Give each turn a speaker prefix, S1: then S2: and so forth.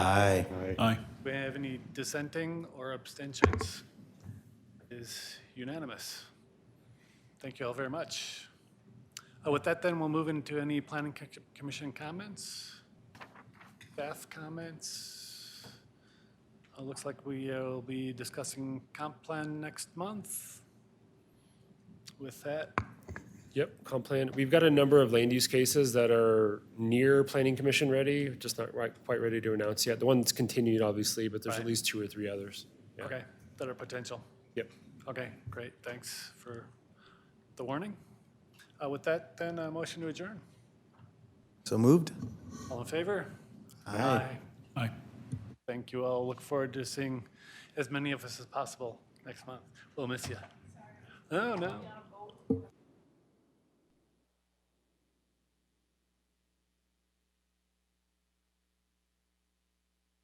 S1: Aye.
S2: Aye.
S3: Do we have any dissenting or abstentions? It Is unanimous. Thank you all very much. Uh, With that then, we'll move into any planning co- commission comments, staff comments. Uh, Looks like we uh, will be discussing comp plan next month. With that,
S4: Yep, comp plan. We've got a number of land use cases that are near planning commission ready, just not right- quite ready to announce yet. The one that's continued, obviously, but there's at
S3: Right.
S4: least two or three others. Yeah.
S3: okay, that are potential.
S4: Yep.
S3: Okay, great, thanks for the warning. Uh, With that then, uh, motion to adjourn.
S1: So moved?
S3: All in favor?
S1: Aye.
S2: Aye.
S3: Thank you all. Look forward to seeing as many of us as possible next month. We'll miss you. Oh, no.